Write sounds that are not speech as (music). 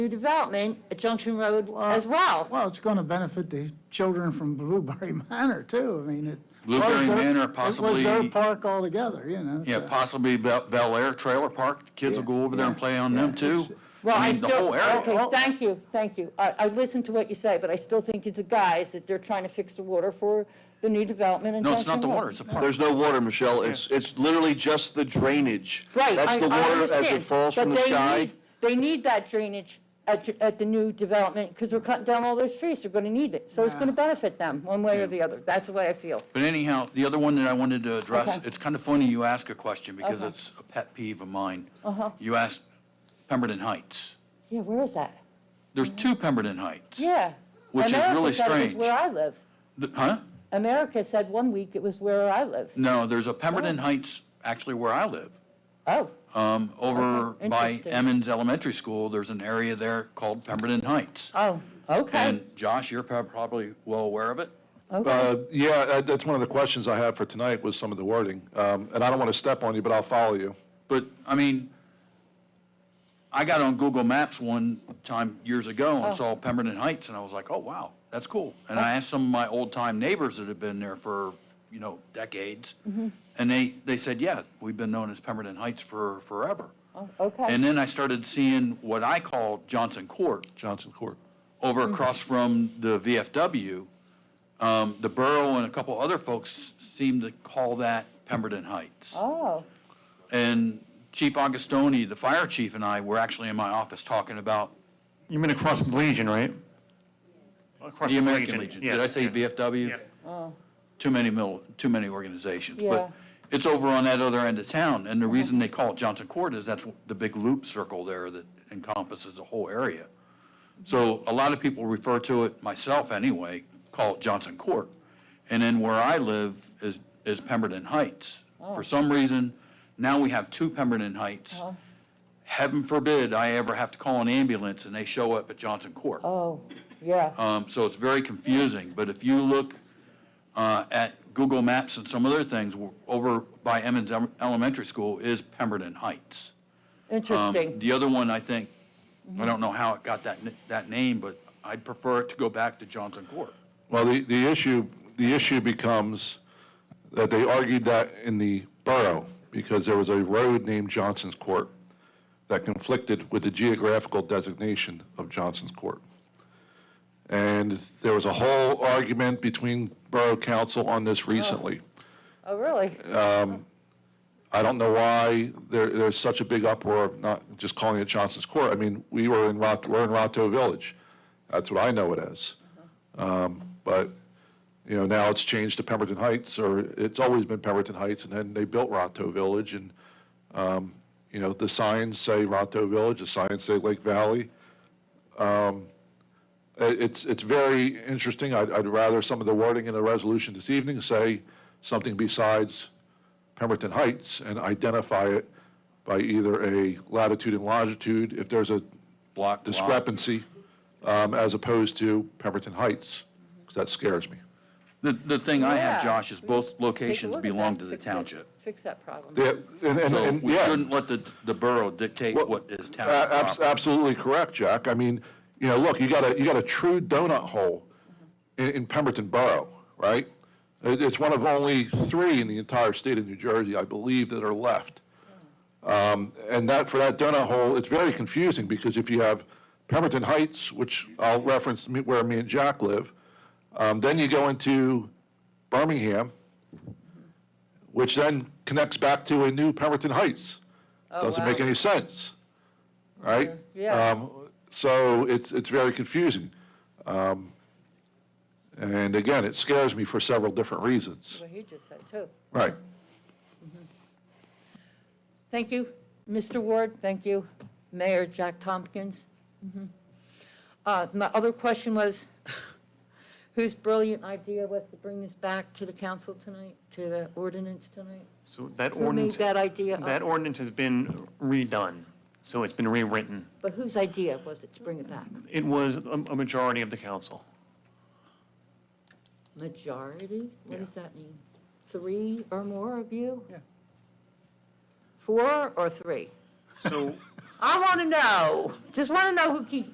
new development at Junction Road as well. Well, it's going to benefit the children from Blueberry (laughs) Manor, too. I mean, it. was Blueberry their- Manor, It was their possibly- park altogether, you know? Yeah, so- possibly Bel Bel Air Trailer Park, kids will go over there and Yeah, play on yeah, them too. it's- Well, I mean, the still, whole area. okay, thank you, thank you. I, I listened to what you say, but I still think it's a guise that they're trying to fix the water for the new development in No, it's Junction Road. not the water, it's a park. There's no water, Michelle. It's, it's literally just the drainage. Right, I, That's the I water as it understand, falls from but the they sky. need- They need that drainage at, ju- at the new development, because they're cutting down all those trees, they're gonna need it. So it's Yeah. gonna benefit them, one way or the other, that's the way I feel. But anyhow, the other one that I wanted to address, Okay. it's kind of funny you ask a question because Okay. it's a pet peeve of mine. Uh-huh. You asked Pemberton Heights. Yeah, where is that? There's two Pemberton Heights. Mm-hmm. Yeah. Which is America really said it was strange. Where I live. Th- Huh? America said one week it was where I live. No, there's a Pemberton Heights, actually where I live. Oh, Um, over Okay, by interesting. Emmons Elementary School, there's an area there called Pemberton Heights. oh, okay, And Josh, you're prob- probably well aware of it. okay. Uh, Yeah, that- that's one of the questions I have for tonight was some of the wording. Um, And I don't want to step on you, but I'll follow you. But, I mean, I got on Google Maps one time years ago Oh. and saw Pemberton Heights, and I was like, oh, wow, that's cool. And I asked some of my old-time neighbors that had been there for, you know, decades, Mm-hmm. and they, they said, yeah, we've been known as Pemberton Heights for forever. Oh, Okay. And then I started seeing what I call Johnson Court, Johnson Court. over Mm. across from the VFW. Um, The borough and a couple other folks seem to call that Pemberton Heights. Oh, And Chief Augustoni, the fire chief, and I were actually in my office talking about You mean across from the Legion, right? Across the from American Legion. Did yeah, I say yeah. VFW? Yeah. Oh. Too many mil, too many organizations. Yeah. But it's over on that other end of town, and the reason they call it Johnson Court is that's the big loop circle there that encompasses the whole area. So a lot of people refer to it, myself anyway, call it Johnson Court. And then where I live is, is Pemberton Heights. For some reason, now we have two Pemberton Heights. Heaven forbid I ever have to call an ambulance and they show up at Johnson Court. oh, yeah. Um, So it's very confusing, but if you look uh, at Google Maps and some other things, w- over by Emmons Em- Elementary School is Pemberton Heights. Um, Interesting. Mm-hmm. The other one, I think, I don't know how it got that, n- that name, but I'd prefer it to go back to Johnson Court. Well, the, the issue, the issue becomes that they argued that in the borough because there was a road named Johnson's Court that conflicted with the geographical designation of Johnson's Court. And there was a whole argument between borough council on this recently. Oh, really? I don't know why there, there's such a big uproar of not just calling it Johnson's Court. I mean, we were in Rot, we're in Rato Village. That's what I know it as. Um, But, you know, now it's changed to Pemberton Heights, or it's always been Pemberton Heights, and then they built Rato Village, and, um, you know, the signs say Rato Village, the signs say Lake Valley. Uh, It's, it's very interesting. I'd, I'd rather some of the wording in the resolution this evening say something besides Pemberton Heights and identify it by either a latitude and longitude, if there's a Block, block. discrepancy, um, as opposed to Pemberton Heights, because that scares me. The, the thing I have, Yeah. Josh, is both Take a locations look at belong that, to the fix it, township. Fix that problem. Yeah, and, and, So and, we yeah. shouldn't let the, the borough dictate Well, what is a- township abs- property. Absolutely correct, Jack. I mean, you know, look, you got a, you got a true donut hole in, in Pemberton Borough, right? It, it's one of only three in the entire state of New Jersey, I believe, that are left. Um, and that, for that donut hole, it's very confusing because if you have Pemberton Heights, which I'll reference me- where me and Jack live, um, then you go into Birmingham, which then connects back to a new Pemberton Heights. Oh, Doesn't wow. make any sense, right? Yeah. Um, So it's, it's very confusing. Um, And again, it scares me for several different reasons. Well, he just said too. Right. Thank you, Mr. Ward, thank you, Mayor Jack Tompkins. Mhm. Uh, My other question was, (laughs) whose brilliant idea was to bring this back to the council tonight, to the ordinance tonight? So that Who made ordinance, that idea up? that ordinance has been redone, so it's been rewritten. But whose idea was it to bring it back? It was a a majority of the council. Majority? What Yeah. does that mean? Three or more of you? Yeah. Four or three? So I want to know, just want to know who keeps